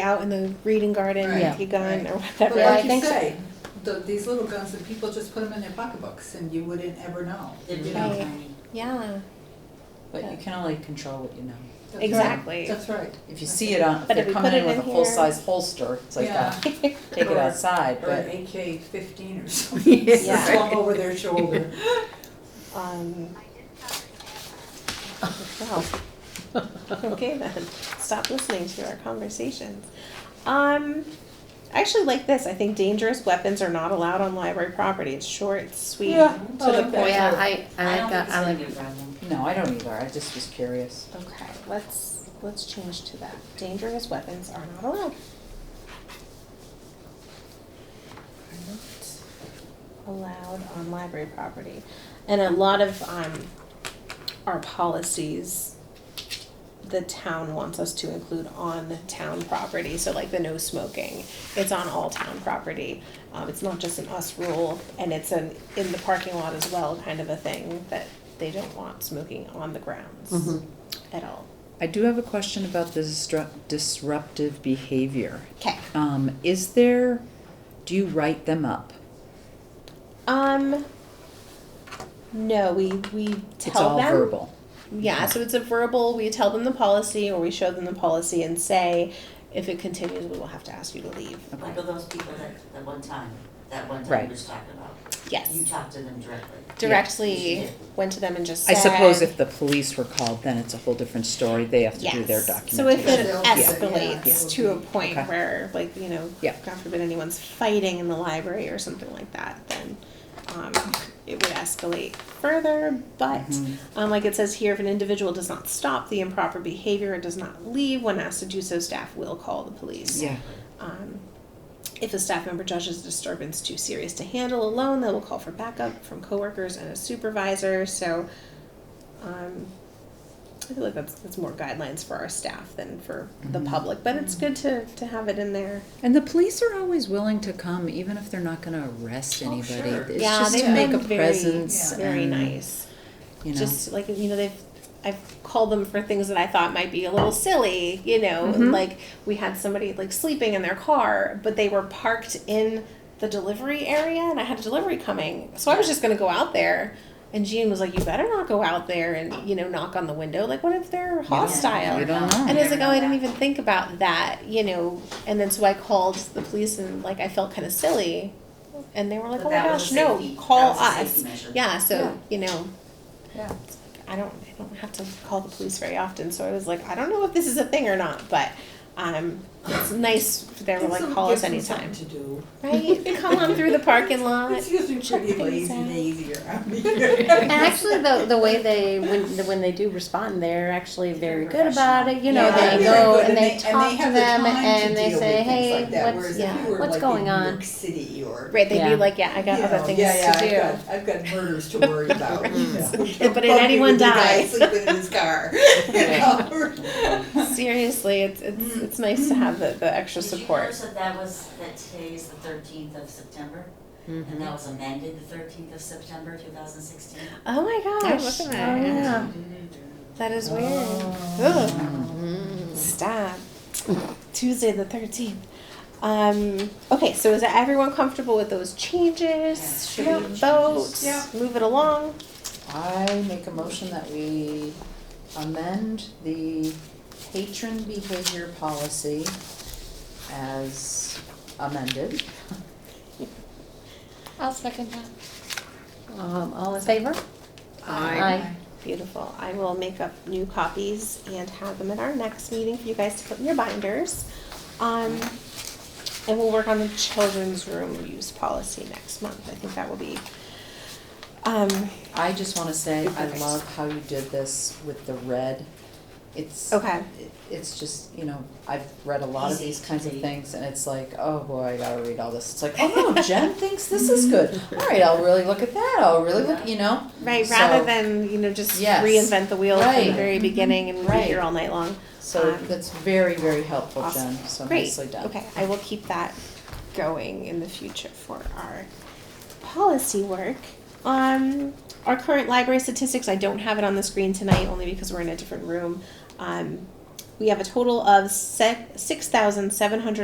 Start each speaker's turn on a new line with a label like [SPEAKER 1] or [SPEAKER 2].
[SPEAKER 1] out in the reading garden
[SPEAKER 2] Right.
[SPEAKER 1] with your gun
[SPEAKER 2] Right.
[SPEAKER 1] or
[SPEAKER 2] But
[SPEAKER 1] whatever. I
[SPEAKER 2] like you
[SPEAKER 1] think so.
[SPEAKER 2] say, th these little guns, that people just put them in their pocketbooks and you wouldn't ever know.
[SPEAKER 3] They're
[SPEAKER 2] you
[SPEAKER 3] really
[SPEAKER 2] know?
[SPEAKER 1] Right.
[SPEAKER 3] tiny,
[SPEAKER 1] Yeah,
[SPEAKER 4] But you can only control what you know.
[SPEAKER 2] That's right.
[SPEAKER 1] exactly.
[SPEAKER 2] That's right.
[SPEAKER 4] If you see it on, if
[SPEAKER 1] But if
[SPEAKER 4] they're
[SPEAKER 1] we
[SPEAKER 4] coming
[SPEAKER 1] put
[SPEAKER 4] in
[SPEAKER 1] it
[SPEAKER 4] with a
[SPEAKER 1] in here-
[SPEAKER 4] full-size holster, it's like,
[SPEAKER 2] Yeah.
[SPEAKER 4] uh, take it
[SPEAKER 2] Or-
[SPEAKER 4] outside,
[SPEAKER 2] Or an
[SPEAKER 4] but
[SPEAKER 2] AK fifteen or something, just
[SPEAKER 1] Yeah.
[SPEAKER 2] slung over their shoulder.
[SPEAKER 1] Um, well, okay then. Stop listening to our conversations. Um, I actually like this. I think dangerous weapons are not allowed on library property. It's short, it's sweet.
[SPEAKER 4] Yeah,
[SPEAKER 2] I
[SPEAKER 1] to the
[SPEAKER 2] like that.
[SPEAKER 1] point.
[SPEAKER 5] Yeah, I,
[SPEAKER 3] I
[SPEAKER 5] I
[SPEAKER 3] don't
[SPEAKER 5] like
[SPEAKER 3] think
[SPEAKER 5] that,
[SPEAKER 3] it's
[SPEAKER 5] I
[SPEAKER 3] gonna
[SPEAKER 5] like,
[SPEAKER 3] be a problem.
[SPEAKER 4] no, I don't either. I just was curious.
[SPEAKER 1] Okay, let's let's change to that. Dangerous weapons are not allowed. Are not allowed on library property, and a lot of um, our policies, the town wants us to include on town property. So like the no smoking, it's on all town property. Um, it's not just an us rule, and it's an in the parking lot as well kind of a thing that they don't want smoking on the grounds
[SPEAKER 5] Mhm.
[SPEAKER 1] at all.
[SPEAKER 6] I do have a question about the disru- disruptive behavior.
[SPEAKER 1] Okay.
[SPEAKER 6] Um, is there, do you write them up?
[SPEAKER 1] Um. No, we we
[SPEAKER 6] It's
[SPEAKER 1] tell
[SPEAKER 6] all
[SPEAKER 1] them.
[SPEAKER 6] verbal.
[SPEAKER 1] Yeah, so it's a verbal. We tell them the policy, or we show them the policy and say, if it continues, we will have to ask you to leave.
[SPEAKER 3] Like of those people that, that one time, that one time
[SPEAKER 6] Right.
[SPEAKER 3] we was talking about, you
[SPEAKER 1] Yes,
[SPEAKER 3] talked to them directly.
[SPEAKER 1] directly
[SPEAKER 3] Yeah.
[SPEAKER 1] went to them and just.
[SPEAKER 6] I
[SPEAKER 1] Said,
[SPEAKER 6] suppose if the police were called, then it's a whole different story. They have to do their
[SPEAKER 1] Yes. So if
[SPEAKER 6] documentation.
[SPEAKER 1] it
[SPEAKER 2] documentation.
[SPEAKER 1] escalates
[SPEAKER 2] Yeah.
[SPEAKER 1] to a point
[SPEAKER 6] Okay.
[SPEAKER 1] where, like, you know,
[SPEAKER 6] Yeah.
[SPEAKER 1] God forbid anyone's fighting in the library or something like that, then um, it would escalate further. But,
[SPEAKER 6] Mhm.
[SPEAKER 1] um, like it says here, if an individual does not stop the improper behavior and does not leave when asked to do so, staff will call the police.
[SPEAKER 6] Yeah,
[SPEAKER 1] Um, if a staff member judges a disturbance too serious to handle alone, they will call for backup from coworkers and a supervisor. So, um, I feel like that's that's more guidelines for our staff than for the public, but it's good to to have it in there.
[SPEAKER 6] and the police are always willing to come, even if they're not gonna arrest
[SPEAKER 4] Oh,
[SPEAKER 6] anybody.
[SPEAKER 3] sure.
[SPEAKER 6] It's
[SPEAKER 1] yeah,
[SPEAKER 6] just
[SPEAKER 1] they've
[SPEAKER 6] to make a
[SPEAKER 1] been very-
[SPEAKER 6] presence
[SPEAKER 1] very
[SPEAKER 6] and,
[SPEAKER 1] nice.
[SPEAKER 6] You know,
[SPEAKER 1] Just like you know, they've I've called them for things that I thought might be a little silly. You know,
[SPEAKER 6] Mm-hmm.
[SPEAKER 1] and, like we had somebody like sleeping in their car, but they were parked in the delivery area, and I had a delivery coming, so I was just gonna go out there. And Jean was like, "You better not go out there and you know knock on the window. Like, what if they're hostile?"
[SPEAKER 6] you don't know.
[SPEAKER 1] And I was like, oh, I didn't even think about that, you know. And then so I called the police and like I felt kind of silly, and they were like,
[SPEAKER 3] But
[SPEAKER 1] oh my
[SPEAKER 3] that was
[SPEAKER 1] gosh,
[SPEAKER 3] a
[SPEAKER 1] no,
[SPEAKER 3] safety-
[SPEAKER 1] call
[SPEAKER 3] that was a
[SPEAKER 1] us.
[SPEAKER 3] safety measure.
[SPEAKER 1] Yeah, so you know,
[SPEAKER 2] Yeah.
[SPEAKER 1] It's like, I don't, I don't have to call the police very often. So I was like, I don't know if this is a thing or not, but um, it's nice. They were like, call us anytime,
[SPEAKER 2] Gives them something
[SPEAKER 1] right? Come on through the parking
[SPEAKER 2] to do.
[SPEAKER 1] lot.
[SPEAKER 2] It's usually pretty
[SPEAKER 1] things
[SPEAKER 2] lazy
[SPEAKER 1] out.
[SPEAKER 2] and easy around here.
[SPEAKER 5] and actually, the, the way they, when, the- when they do respond, they're actually very good about it, you know,
[SPEAKER 2] Yeah, they're
[SPEAKER 5] they
[SPEAKER 2] very
[SPEAKER 5] go
[SPEAKER 2] good,
[SPEAKER 5] and they talk to
[SPEAKER 2] have the
[SPEAKER 5] them,
[SPEAKER 2] time to
[SPEAKER 5] and they
[SPEAKER 2] deal
[SPEAKER 5] say,
[SPEAKER 2] with things
[SPEAKER 5] hey,
[SPEAKER 2] like that,
[SPEAKER 5] what's,
[SPEAKER 2] whereas if
[SPEAKER 1] yeah,
[SPEAKER 2] you were,
[SPEAKER 5] what's
[SPEAKER 2] like,
[SPEAKER 5] going
[SPEAKER 2] in
[SPEAKER 5] on?
[SPEAKER 2] New York City or
[SPEAKER 1] Right? They'd
[SPEAKER 5] Yeah.
[SPEAKER 1] be like, yeah, I got
[SPEAKER 2] You
[SPEAKER 1] other
[SPEAKER 2] know,
[SPEAKER 1] things
[SPEAKER 2] yeah, yeah,
[SPEAKER 1] to do.
[SPEAKER 2] I've got, I've got murders to worry about. you know.
[SPEAKER 1] But did anyone
[SPEAKER 2] Bumpy with the guy
[SPEAKER 1] die?
[SPEAKER 2] Sleeping in his car. you know?
[SPEAKER 1] Seriously, it's it's
[SPEAKER 2] Mm.
[SPEAKER 1] it's nice to have the, the extra support.
[SPEAKER 3] Did you notice that that was, that today is the thirteenth of September?
[SPEAKER 5] Mm-hmm.
[SPEAKER 3] And that was amended the thirteenth of September, two thousand sixteen?
[SPEAKER 1] Oh my gosh.
[SPEAKER 5] look
[SPEAKER 1] Oh,
[SPEAKER 5] at that.
[SPEAKER 1] yeah. That is weird. Ugh. Stop. Tuesday the 13th. Um, okay, so is everyone comfortable with those changes? Should
[SPEAKER 2] Yeah.
[SPEAKER 1] we vote?
[SPEAKER 2] Yeah.
[SPEAKER 1] Move it along?
[SPEAKER 4] I make a motion that we amend the patron behavior policy as amended.
[SPEAKER 5] I'll second that. Um, all in favor? Aye.
[SPEAKER 1] Beautiful. I will make up new copies and have them at our next meeting for you guys to put in your binders. Um, and we'll work on the children's room use policy next month. I think that will be, um,
[SPEAKER 4] I just wanna say, I
[SPEAKER 1] Perfect.
[SPEAKER 4] love how you did this with the red. It's,
[SPEAKER 1] okay.
[SPEAKER 4] it- it's just, you know, I've read a lot of
[SPEAKER 3] Easy
[SPEAKER 4] these
[SPEAKER 3] to
[SPEAKER 4] kinds of
[SPEAKER 3] read.
[SPEAKER 4] things and it's like, oh boy, I gotta read all this. It's like, oh no, Jen thinks this is good. All right, I'll really look at that. I'll really look, you know?
[SPEAKER 1] Right,
[SPEAKER 4] So-
[SPEAKER 1] rather than, you know, just
[SPEAKER 4] Yes.
[SPEAKER 1] reinvent the wheel from the
[SPEAKER 4] Right.
[SPEAKER 1] very beginning and be
[SPEAKER 4] Right.
[SPEAKER 1] here all night long.
[SPEAKER 4] So
[SPEAKER 1] Um,
[SPEAKER 4] that's very, very helpful,
[SPEAKER 1] awesome.
[SPEAKER 4] Jen, so
[SPEAKER 1] Great,
[SPEAKER 4] nicely done.
[SPEAKER 1] okay, I will keep that going in the future for our policy work. Um, our current library statistics, I don't have it on the screen tonight, only because we're in a different room. Um, we have a total of six thousand seven hundred.